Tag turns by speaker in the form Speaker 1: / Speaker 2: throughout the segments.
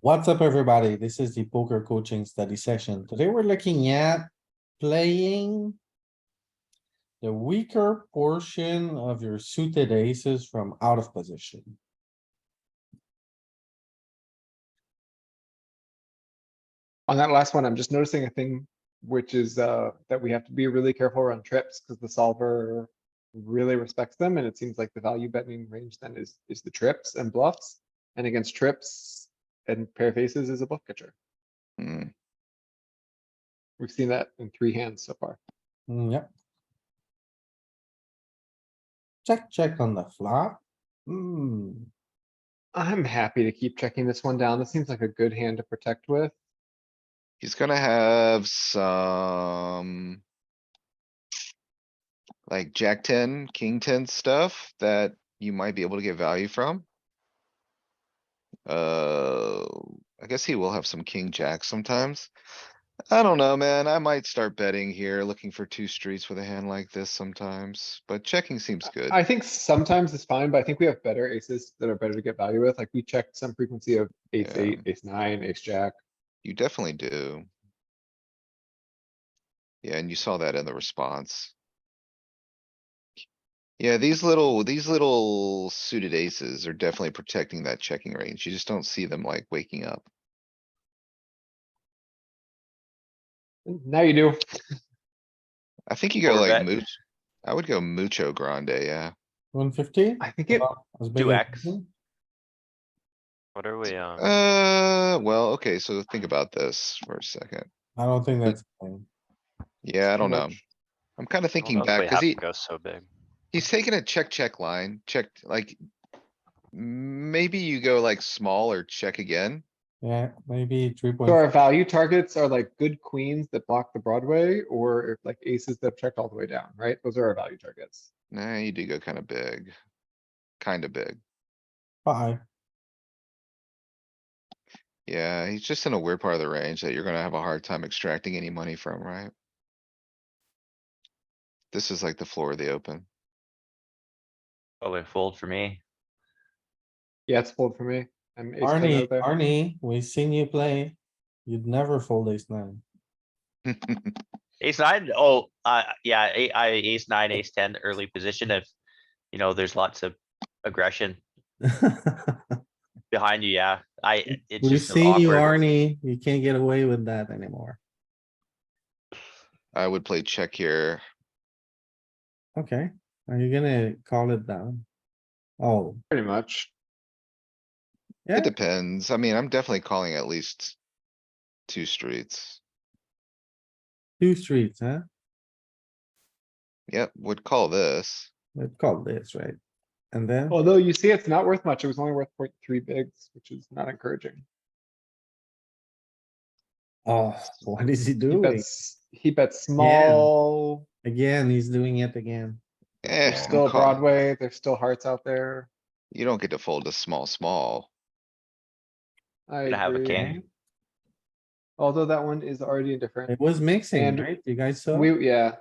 Speaker 1: What's up, everybody? This is the poker coaching study session. Today we're looking at playing the weaker portion of your suited aces from out of position.
Speaker 2: On that last one, I'm just noticing a thing, which is uh, that we have to be really careful around trips because the solver really respects them, and it seems like the value betting range then is, is the trips and bluffs. And against trips and pair faces is a bluff catcher.
Speaker 3: Hmm,
Speaker 2: We've seen that in three hands so far.
Speaker 1: Mm, Yep. Check, check on the flop. Hmm,
Speaker 2: I'm happy to keep checking this one down. This seems like a good hand to protect with.
Speaker 3: he's gonna have some. Like jack ten, king ten stuff that you might be able to get value from. Uh, I guess he will have some king jack sometimes. I don't know, man. I might start betting here, looking for two streets with a hand like this sometimes, but checking seems good.
Speaker 2: I think sometimes it's fine, but I think we have better aces that are better to get value with. Like we checked some frequency of ace
Speaker 3: Yeah.
Speaker 2: eight, ace nine, ace jack.
Speaker 3: You definitely do. Yeah, and you saw that in the response. Yeah, these little, these little suited aces are definitely protecting that checking range. You just don't see them like waking up.
Speaker 2: Now you do.
Speaker 3: I think you go
Speaker 4: Or
Speaker 3: like
Speaker 4: bet.
Speaker 3: mooch. I would go mucho grande, yeah.
Speaker 1: one fifty?
Speaker 2: I think it
Speaker 4: Two X. What are we, um,
Speaker 3: Uh, well, okay, so think about this for a second.
Speaker 1: I don't think that's. fine.
Speaker 3: Yeah, I
Speaker 2: too
Speaker 3: don't know.
Speaker 2: much.
Speaker 3: I'm kinda
Speaker 4: I don't
Speaker 3: thinking
Speaker 4: know if we
Speaker 3: back, cause
Speaker 4: have to
Speaker 3: he,
Speaker 4: go so big.
Speaker 3: he's taking a check, check line, checked like. Maybe you go like small or check again.
Speaker 1: Yeah, maybe three point.
Speaker 2: So our value targets are like good queens that block the Broadway or like aces that have checked all the way down, right? Those are our value targets.
Speaker 3: Nah, you do go kinda big. Kinda big.
Speaker 1: Five,
Speaker 3: Yeah, he's just in a weird part of the range that you're gonna have a hard time extracting any money from, right? This is like the floor of the open.
Speaker 4: Probably fold for me.
Speaker 2: Yeah, it's fold for me. I'm ace ten
Speaker 1: Arnie,
Speaker 2: out there.
Speaker 1: Arnie, we seen you play. You'd never fold ace nine.
Speaker 4: Ace nine, oh, uh, yeah, a- I, ace nine, ace ten, early position if, you know, there's lots of aggression behind you, yeah. I, it's
Speaker 1: We
Speaker 4: just an
Speaker 1: see you,
Speaker 4: awkward.
Speaker 1: Arnie. You can't get away with that anymore.
Speaker 3: I would play check here.
Speaker 1: Okay, are you gonna call it down? Oh,
Speaker 2: Pretty much.
Speaker 1: Yeah.
Speaker 3: It depends. I mean, I'm definitely calling at least two streets.
Speaker 1: two streets, huh?
Speaker 3: Yep, would call this.
Speaker 1: We call this, right? And then,
Speaker 2: Although you see, it's not worth much. It was only worth 0.3 bigs, which is not encouraging.
Speaker 1: oh, what is he
Speaker 2: He
Speaker 1: doing?
Speaker 2: bets, he bets small.
Speaker 1: Again, he's doing it again.
Speaker 3: Eh,
Speaker 2: There's
Speaker 3: I'm
Speaker 2: still a
Speaker 3: call-
Speaker 2: Broadway. There's still hearts out there.
Speaker 3: You don't get to fold a small, small.
Speaker 2: I
Speaker 4: Gonna have a
Speaker 2: agree.
Speaker 4: king.
Speaker 2: Although that one is already indifferent.
Speaker 1: It was mixing,
Speaker 2: And
Speaker 1: right? You guys saw?
Speaker 2: We, yeah,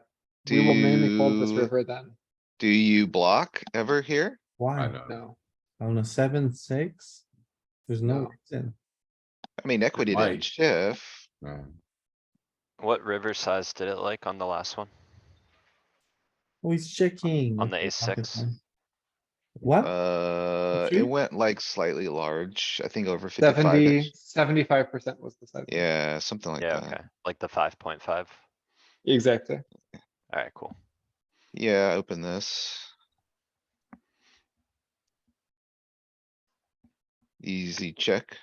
Speaker 2: we will mainly fold this
Speaker 3: Do-
Speaker 2: river then.
Speaker 3: Do you block ever here?
Speaker 1: Why?
Speaker 2: No,
Speaker 1: On a seven, six? There's no
Speaker 2: No.
Speaker 1: reason.
Speaker 3: I mean, equity didn't
Speaker 5: might.
Speaker 3: shift.
Speaker 5: No,
Speaker 4: What river size did it like on the last one?
Speaker 1: Oh, he's checking.
Speaker 4: On the
Speaker 1: Okay,
Speaker 4: ace
Speaker 1: got it,
Speaker 4: six.
Speaker 1: man. What?
Speaker 3: Uh,
Speaker 1: see?
Speaker 3: it went like slightly large, I think over fifty-five
Speaker 2: seventy,
Speaker 3: inch.
Speaker 2: seventy-five percent was the size.
Speaker 3: Yeah, something like
Speaker 4: Yeah, okay,
Speaker 3: that.
Speaker 4: like the five point five.
Speaker 2: Exactly.
Speaker 4: Alright, cool.
Speaker 3: Yeah, open this. Easy check.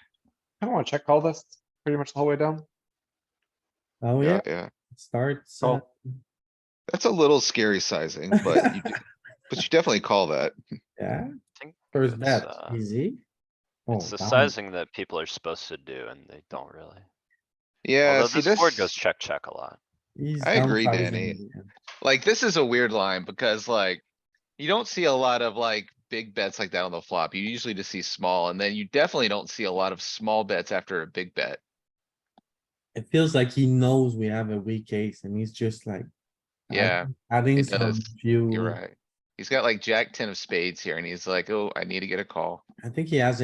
Speaker 2: I don't wanna check call this pretty much the whole way down.
Speaker 1: Oh, yeah,
Speaker 3: Yeah, yeah.
Speaker 1: it starts. uh,
Speaker 4: Oh,
Speaker 3: That's a little scary sizing, but you, d- but you definitely call that.
Speaker 1: Yeah.
Speaker 4: think
Speaker 1: First
Speaker 4: it's,
Speaker 1: bet,
Speaker 4: uh,
Speaker 1: easy. Oh,
Speaker 4: It's the
Speaker 1: down.
Speaker 4: sizing that people are supposed to do and they don't really.
Speaker 3: Yeah,
Speaker 4: Although
Speaker 3: see
Speaker 4: this board goes
Speaker 3: this,
Speaker 4: check, check a lot.
Speaker 1: He's
Speaker 3: I agree,
Speaker 1: downsizing
Speaker 3: Danny.
Speaker 1: again.
Speaker 3: like, this is a weird line because like, you don't see a lot of like big bets like that on the flop. You usually just see small and then you definitely don't see a lot of small bets after a big bet.
Speaker 1: It feels like he knows we have a weak case and he's just like. add-
Speaker 3: Yeah,
Speaker 1: Adding
Speaker 3: it
Speaker 1: some
Speaker 3: does.
Speaker 1: few.
Speaker 3: You're right. He's got like jack ten of spades here and he's like, oh, I need to get a call.
Speaker 1: I think he has